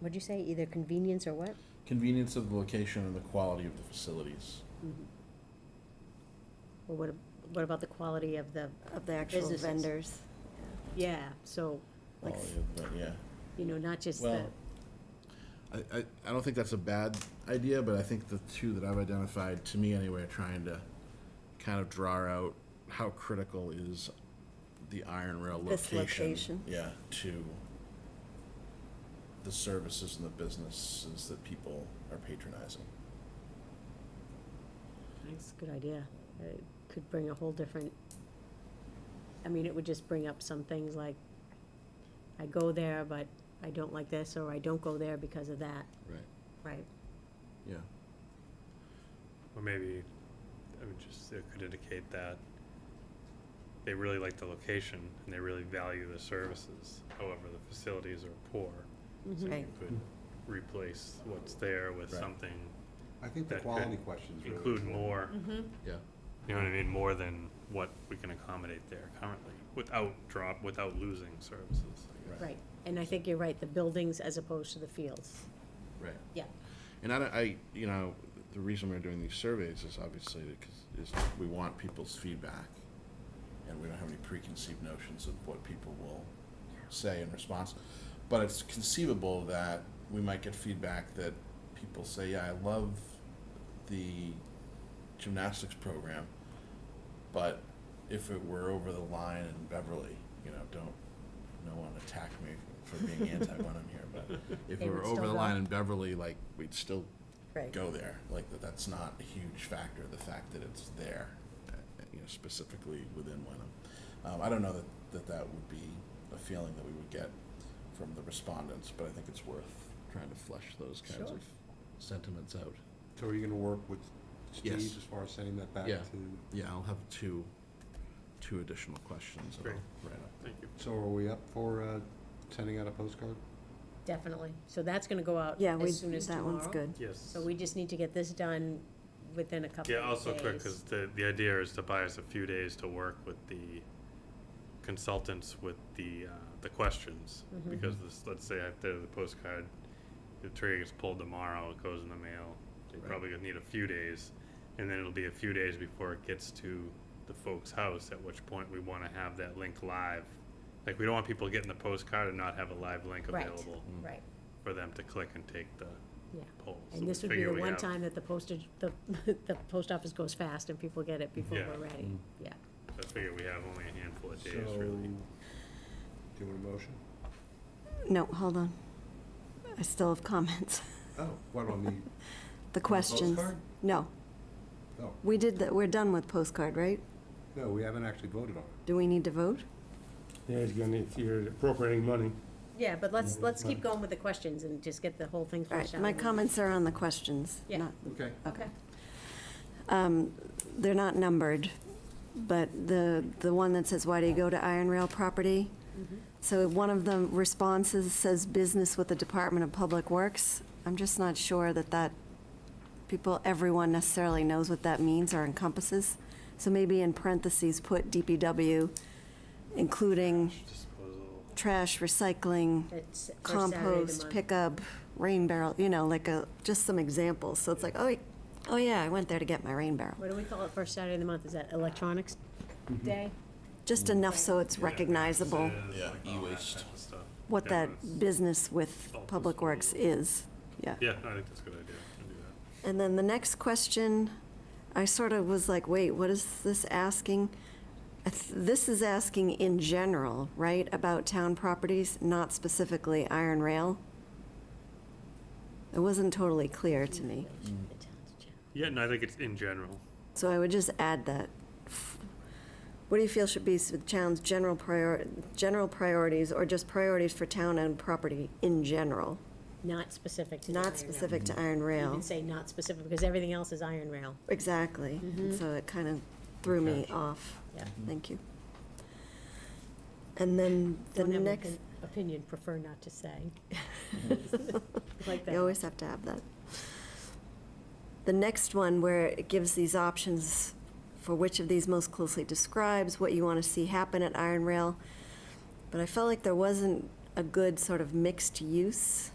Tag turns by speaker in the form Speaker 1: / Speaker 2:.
Speaker 1: What'd you say, either convenience or what?
Speaker 2: Convenience of the location and the quality of the facilities.
Speaker 3: Well, what, ab- what about the quality of the,
Speaker 4: of the actual
Speaker 3: Businesses.
Speaker 4: vendors.
Speaker 3: yeah, so, like,
Speaker 2: Quality of the, yeah.
Speaker 3: you know, not just the,
Speaker 2: Well, I, I, I don't think that's a bad idea, but I think the two that I've identified, to me anyway, are trying to kind of draw out how critical is the iron rail
Speaker 4: This
Speaker 2: location.
Speaker 4: location.
Speaker 2: Yeah, to the services and the businesses that people are patronizing.
Speaker 3: that's a good idea. It could bring a whole different, I mean, it would just bring up some things like, I go there, but I don't like this, or I don't go there because of that.
Speaker 2: Right.
Speaker 3: Right.
Speaker 2: Yeah.
Speaker 5: Or maybe, I would just, it could indicate that they really like the location and they really value the services. However, the facilities are poor.
Speaker 3: Mm-hmm.
Speaker 5: So you
Speaker 4: Right.
Speaker 5: could replace what's there with
Speaker 2: Right.
Speaker 5: something,
Speaker 6: I think the
Speaker 5: That could
Speaker 6: quality questions really.
Speaker 5: include more,
Speaker 3: Mm-hmm.
Speaker 2: Yeah.
Speaker 5: you know what I mean, more than what we can accommodate there currently, without drop, without losing services. I guess.
Speaker 3: Right, and I think you're right, the buildings as opposed to the fields.
Speaker 2: Right.
Speaker 3: Yeah.
Speaker 2: And I, don't- I, you know, the reason we're doing these surveys is obviously because is we want people's feedback, and we don't have any preconceived notions of what people will say in response. But it's conceivable that we might get feedback that people say, "Yeah, I love the gymnastics program, but if it were over the line in Beverly, you know, don't." No one attack me for being anti when I'm here, but if
Speaker 3: They
Speaker 2: it were
Speaker 3: would
Speaker 2: over
Speaker 3: still
Speaker 2: the
Speaker 3: go.
Speaker 2: line in Beverly, like we'd still
Speaker 4: Right.
Speaker 2: go there. Like that, that's not a huge factor. The fact that it's there, uh, you know, specifically within Wenham. Um, I don't know that, that that would be a feeling that we would get from the respondents, but I think it's worth trying to flesh those kinds
Speaker 4: Sure.
Speaker 2: of sentiments out.
Speaker 6: So are you gonna work with Steve
Speaker 2: Yes.
Speaker 6: as far as sending that back
Speaker 2: Yeah.
Speaker 6: to?
Speaker 2: Yeah, I'll have two two additional questions. that I'll
Speaker 5: Great.
Speaker 2: write up.
Speaker 5: Thank you.
Speaker 6: So are we up for, uh, sending out a postcard?
Speaker 3: Definitely, so that's gonna go out
Speaker 4: Yeah, we,
Speaker 3: as soon as
Speaker 4: that
Speaker 3: tomorrow.
Speaker 4: one's good.
Speaker 5: Yes.
Speaker 3: So we just need to get this done within a couple of days.
Speaker 5: Yeah, also quick, because the, the idea is to buy us a few days to work with the consultants with the, uh, the questions.
Speaker 3: Mhm.
Speaker 5: Because this, let's say after the postcard, the trigger gets pulled tomorrow, it goes in the mail, they
Speaker 2: Right.
Speaker 5: probably gonna need a few days. And then it'll be a few days before it gets to the folks' house, at which point we wanna have that link live. Like, we don't want people getting the postcard and not have a live link
Speaker 3: Right.
Speaker 5: available
Speaker 3: Right,
Speaker 5: for them to click and take the
Speaker 3: yeah.
Speaker 5: poll. So
Speaker 3: And
Speaker 5: we
Speaker 3: this would be
Speaker 5: figure
Speaker 3: the
Speaker 5: we
Speaker 3: one
Speaker 5: have-
Speaker 3: time that the postage, the, the post office goes fast and people get it before
Speaker 5: Yeah.
Speaker 3: we're ready, yeah.
Speaker 5: I figure we have only a handful of
Speaker 6: So,
Speaker 5: days, really.
Speaker 6: Do you want a motion?
Speaker 4: No, hold on. I still have comments.
Speaker 6: Oh, what on the,
Speaker 4: The questions.
Speaker 6: postcard?
Speaker 4: No,
Speaker 6: oh,
Speaker 4: we did, that. we're done with postcard, right?
Speaker 6: no, we haven't actually voted on it.
Speaker 4: Do we need to vote?
Speaker 7: Yeah, he's gonna, if you're appropriating money,
Speaker 3: Yeah, but let's, let's keep going with the questions and just get the whole thing
Speaker 4: All
Speaker 3: flushed
Speaker 4: right,
Speaker 3: out.
Speaker 4: my
Speaker 3: and-
Speaker 4: comments are on the questions.
Speaker 3: Yeah.
Speaker 4: not-
Speaker 6: Okay.
Speaker 3: Okay,
Speaker 4: um, They're not numbered, but the, the one that says, why do you go to Iron Rail property?
Speaker 3: Mm-hmm.
Speaker 4: So one of the responses says business with the Department of Public Works. I'm just not sure that that, people, everyone necessarily knows what that means or encompasses. So maybe in parentheses, put DPW, including
Speaker 5: Disposal.
Speaker 4: trash, recycling,
Speaker 3: that's first Saturday of the
Speaker 4: compost,
Speaker 3: month.
Speaker 4: pickup, rain barrel, you know, like a, just some examples. So it's like, oh, oh yeah, I went there to get my rain barrel.
Speaker 3: What do we call it, first Saturday of the month, is that electronics day?
Speaker 4: Just enough so it's recognizable
Speaker 2: Yeah,
Speaker 5: Like all that
Speaker 2: e-waste.
Speaker 5: type of stuff.
Speaker 4: what
Speaker 5: Yeah,
Speaker 4: that
Speaker 5: that's-
Speaker 4: business with
Speaker 5: All
Speaker 4: Public Works is, yeah.
Speaker 5: Yeah, I think that's a good idea, I can do that.
Speaker 4: And then the next question, I sort of was like, wait, what is this asking? I th- This is asking in general, right, about town properties, not specifically iron rail? It wasn't totally clear to me.
Speaker 3: Mm-hmm.
Speaker 5: Yeah, no, I think it's in general.
Speaker 4: So I would just add that. What do you feel should be the town's general prior, general priorities or just priorities for town-owned property in general?
Speaker 3: Not specific to the iron
Speaker 4: Not
Speaker 3: rail.
Speaker 4: specific to iron
Speaker 3: You
Speaker 4: rail.
Speaker 3: can say not specific, because everything else is iron rail,
Speaker 4: Exactly.
Speaker 3: Mm-hmm.
Speaker 4: And So it kind of threw me off.
Speaker 3: yeah.
Speaker 4: Thank you. And then the
Speaker 3: Don't have an
Speaker 4: next,
Speaker 3: opin- Opinion, prefer not to say. Like that.
Speaker 4: you always have to have that. The next one where it gives these options for which of these most closely describes what you want to see happen at Iron Rail. But I felt like there wasn't a good sort of mixed use